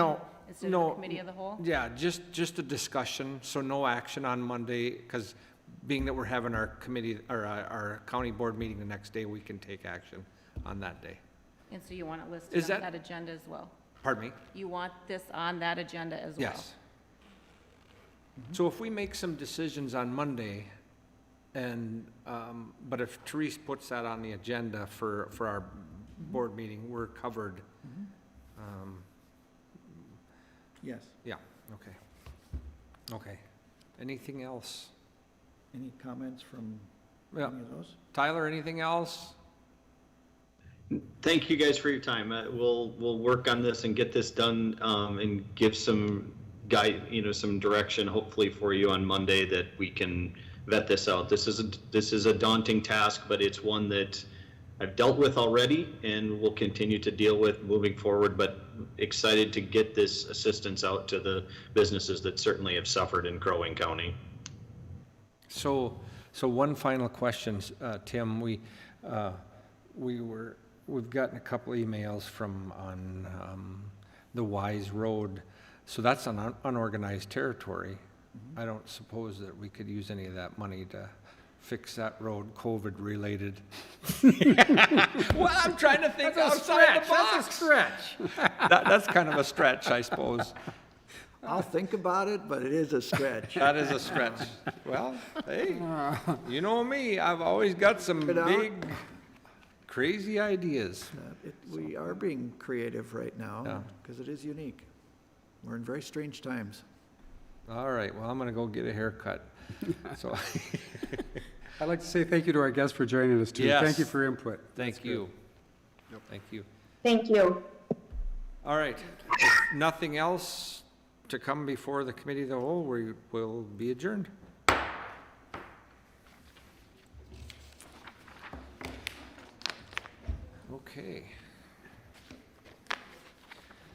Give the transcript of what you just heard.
No, instead of no. the committee of the whole? Yeah, just, just a discussion, so no action on Monday, because being that we're having our committee, or uh, our county board meeting the next day, we can take action on that day. And so you want it Is listed on that- that agenda as well? Pardon me? You want this on that agenda as well? Yes. So if we make some decisions on Monday, and, um, but if Therese puts that on the agenda for, for our board meeting, we're covered. Um, Mm-hmm. Yes, Okay. Okay. Anything else? any comments from any Yeah. of those? Tyler, anything else? Thank you guys for your time. Uh, We'll, we'll work on this and get this done um, and give some guide, you know, some direction hopefully for you on Monday that we can vet this out. This is, a this is a daunting task, but it's one that I've dealt with already and will continue to deal with moving forward, but excited to get this assistance out to the businesses that certainly have suffered in Crow Wing County. So, so one final question, uh, Tim. We, uh, we were, we've gotten a couple emails from on um, the Wise Road. So that's on un- unorganized territory. I don't suppose that we could use any of that money to fix that road, COVID-related. Well, I'm trying to think outside the box. That's a stretch. that's kind of a stretch, I suppose. I'll think about it, but it is a stretch. That is a stretch. Well, hey, you know me, I've always got some Get out. big, crazy ideas. Uh, it- We are being creative right now, Yeah. because it is unique. We're in very strange times. All right, well, I'm gonna go get a haircut. So, I'd like to say thank you to our guests for joining us, too. Thank you Yes. for your input. thank you. Thank you. Thank you. All right, if nothing else to come before the committee of the whole, we will be adjourned. Okay.